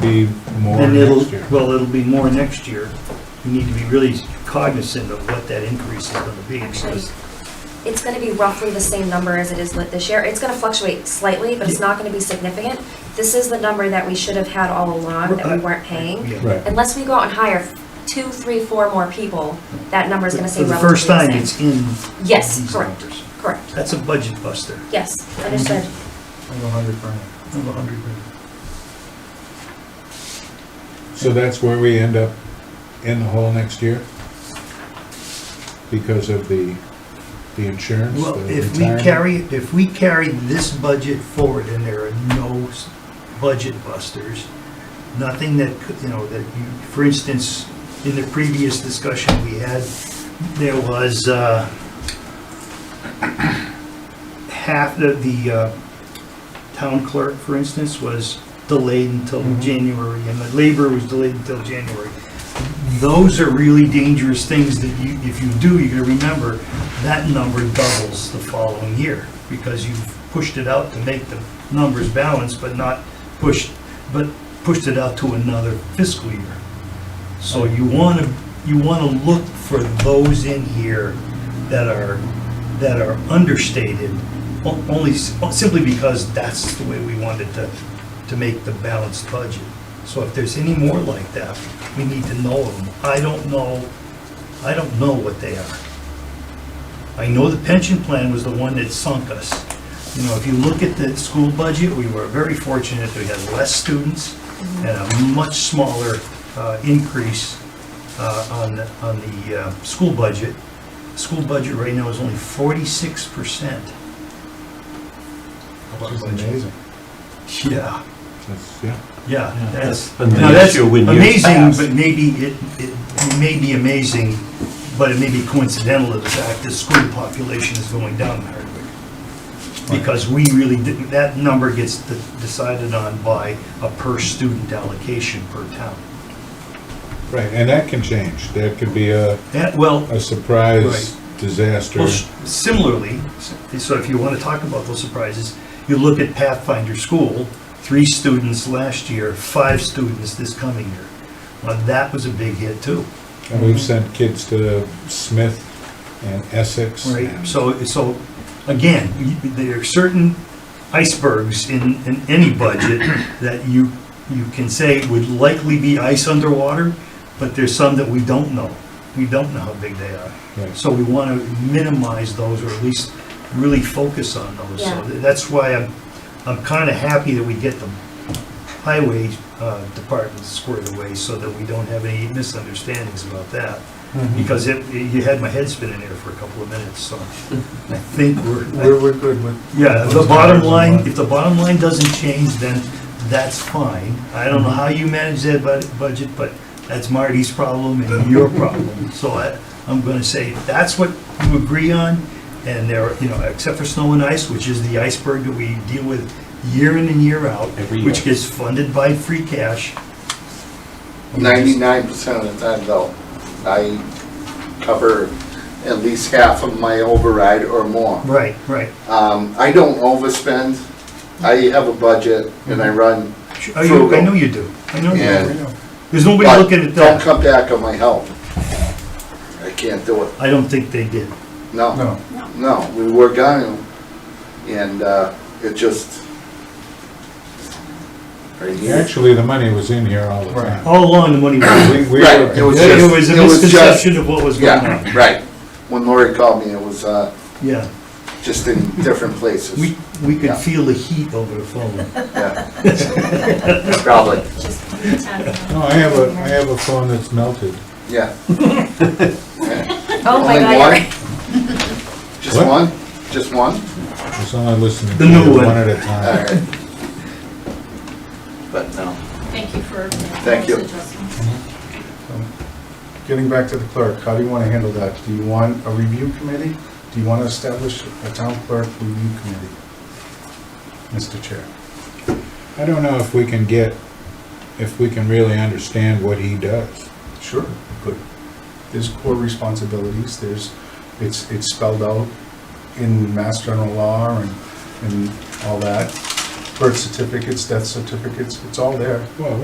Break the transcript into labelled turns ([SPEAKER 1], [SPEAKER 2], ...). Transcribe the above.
[SPEAKER 1] be more
[SPEAKER 2] Then it'll,
[SPEAKER 1] next year.
[SPEAKER 2] well, it'll be more next year. You need to be really cognizant of what that increase is gonna be,
[SPEAKER 3] Actually,
[SPEAKER 2] because
[SPEAKER 3] it's gonna be roughly the same number as it is lit this year. It's gonna fluctuate slightly, but it's not gonna be significant. This is the number that we should have had all along that we weren't paying.
[SPEAKER 2] yeah.
[SPEAKER 1] Right.
[SPEAKER 3] Unless we go out and hire two, three, four more people, that number is gonna
[SPEAKER 2] For
[SPEAKER 3] stay
[SPEAKER 2] the
[SPEAKER 3] relatively the
[SPEAKER 2] first
[SPEAKER 3] same.
[SPEAKER 2] time, it's in
[SPEAKER 3] Yes,
[SPEAKER 2] these
[SPEAKER 3] correct,
[SPEAKER 2] numbers.
[SPEAKER 3] correct.
[SPEAKER 2] That's a budget buster
[SPEAKER 3] Yes, understood.
[SPEAKER 2] of a hundred grand.
[SPEAKER 1] So that's where we end up in the hole next year? Because of the, the insurance?
[SPEAKER 2] Well,
[SPEAKER 1] the
[SPEAKER 2] if we
[SPEAKER 1] retirement?
[SPEAKER 2] carry, if we carry this budget forward and there are no s- budget busters, nothing that, could- you know, that you, for instance, in the previous discussion we had, there was, uh, half of the, uh, town clerk, for instance, was delayed until
[SPEAKER 1] Mhm.
[SPEAKER 2] January, and the labor was delayed until January. Those are really dangerous things that you, if you do, you gotta remember, that number doubles the following year, because you've pushed it out to make the numbers balance, but not pushed, but pushed it out to another fiscal year. So you wanna, you wanna look for those in here that are, that are understated, o- only, s- simply because that's the way we wanted to, to make the balanced budget. So if there's any more like that, we need to know them. I don't know, I don't know what they are. I know the pension plan was the one that sunk us. You know, if you look at the school budget, we were very fortunate, we had less students and a much smaller uh, increase uh, on, the- on the uh, school budget. School budget right now is only forty-six percent.
[SPEAKER 1] Which is amazing.
[SPEAKER 2] Yeah,
[SPEAKER 1] That's, yeah.
[SPEAKER 2] yeah, that's,
[SPEAKER 4] And
[SPEAKER 2] now
[SPEAKER 4] the
[SPEAKER 2] that's
[SPEAKER 4] issue when you
[SPEAKER 2] amazing,
[SPEAKER 4] pass-
[SPEAKER 2] but maybe it, it it may be amazing, but it may be coincidental to the fact that school population is going down in Hardwick. Because we really didn't, that number gets de- decided on by a per student allocation per town.
[SPEAKER 1] Right, and that can change. That could be a,
[SPEAKER 2] That, well,
[SPEAKER 1] a surprise disaster.
[SPEAKER 2] Well, s- similarly, s- so if you want to talk about those surprises, you look at Pathfinder School, three students last year, five students this coming year. Well, that was a big hit too,
[SPEAKER 1] And we've sent kids to Smith and Essex.
[SPEAKER 2] right?
[SPEAKER 1] and-
[SPEAKER 2] So, so again, you- there are certain icebergs in, in any budget that you, you can say would likely be ice underwater, but there's some that we don't know. We don't know how big they are.
[SPEAKER 1] Right.
[SPEAKER 2] So we want to minimize those, or at least really focus on those. So
[SPEAKER 3] Yeah.
[SPEAKER 2] th- that's why I'm, I'm kind of happy that we get the highway uh, department squared away so that we don't have any misunderstandings about that. Because it, you had my head spinning there for a couple of minutes, so I think we're,
[SPEAKER 5] We're, we're good with.
[SPEAKER 2] yeah, the bottom line, if the bottom line doesn't change, then that's fine. I don't know
[SPEAKER 5] Mm-hmm.
[SPEAKER 2] how you manage that bud- budget, but that's Marty's problem and your problem. So I, I'm gonna say, that's what you agree on, and there, you know, except for snow and ice, which is the iceberg that we deal with year in and year out.
[SPEAKER 4] Every year.
[SPEAKER 2] Which gets funded by free cash.
[SPEAKER 5] Ninety-nine percent of the time though, I cover at least half of my override or more.
[SPEAKER 2] Right, right.
[SPEAKER 5] Um, I don't overspend. I have a budget and I run,
[SPEAKER 2] Are you, I
[SPEAKER 5] Frugal.
[SPEAKER 2] know you do, I know you
[SPEAKER 5] Yeah.
[SPEAKER 2] do. There's nobody
[SPEAKER 5] but
[SPEAKER 2] Mm-hmm. looking at
[SPEAKER 5] don't
[SPEAKER 2] that.
[SPEAKER 5] come back on my help. I can't do it.
[SPEAKER 2] I don't think they did.
[SPEAKER 5] No, no, we worked on it and, uh, it just. Right here.
[SPEAKER 1] Actually, the money was in here all the time.
[SPEAKER 2] All along, the money was.
[SPEAKER 1] We, we
[SPEAKER 5] Right, it
[SPEAKER 1] were,
[SPEAKER 5] was
[SPEAKER 2] It
[SPEAKER 5] just-
[SPEAKER 2] was a
[SPEAKER 5] it was just-
[SPEAKER 2] misconception of what was going on.
[SPEAKER 5] Yeah, right. When Lori called me, it was, uh,
[SPEAKER 2] Yeah,
[SPEAKER 5] just in different places.
[SPEAKER 2] we, we could
[SPEAKER 5] Yeah.
[SPEAKER 2] feel the heat over the phone.
[SPEAKER 5] Yeah. Probably,
[SPEAKER 3] Just
[SPEAKER 1] no, I have a, I have a phone that's melted.
[SPEAKER 5] yeah.
[SPEAKER 3] Oh my
[SPEAKER 5] Only
[SPEAKER 3] God, you're
[SPEAKER 5] one?
[SPEAKER 3] right.
[SPEAKER 5] Just
[SPEAKER 1] What?
[SPEAKER 5] one? Just one?
[SPEAKER 1] It's only listening
[SPEAKER 2] The
[SPEAKER 1] to
[SPEAKER 2] new
[SPEAKER 1] you
[SPEAKER 2] one.
[SPEAKER 1] one at a
[SPEAKER 5] All
[SPEAKER 1] time.
[SPEAKER 5] right. But no,
[SPEAKER 6] Thank you for.
[SPEAKER 5] Thank you.
[SPEAKER 7] Getting back to the clerk, how do you want to handle that? Do you want a review committee? Do you want to establish a town clerk review committee? Mr. Chair.
[SPEAKER 1] I don't know if we can get, if we can really understand what he does.
[SPEAKER 7] Sure. Good. There's core responsibilities, there's, it's, it's spelled out in Mass General Law and, and all that. Birth certificates, death certificates, it's all there.
[SPEAKER 1] Well,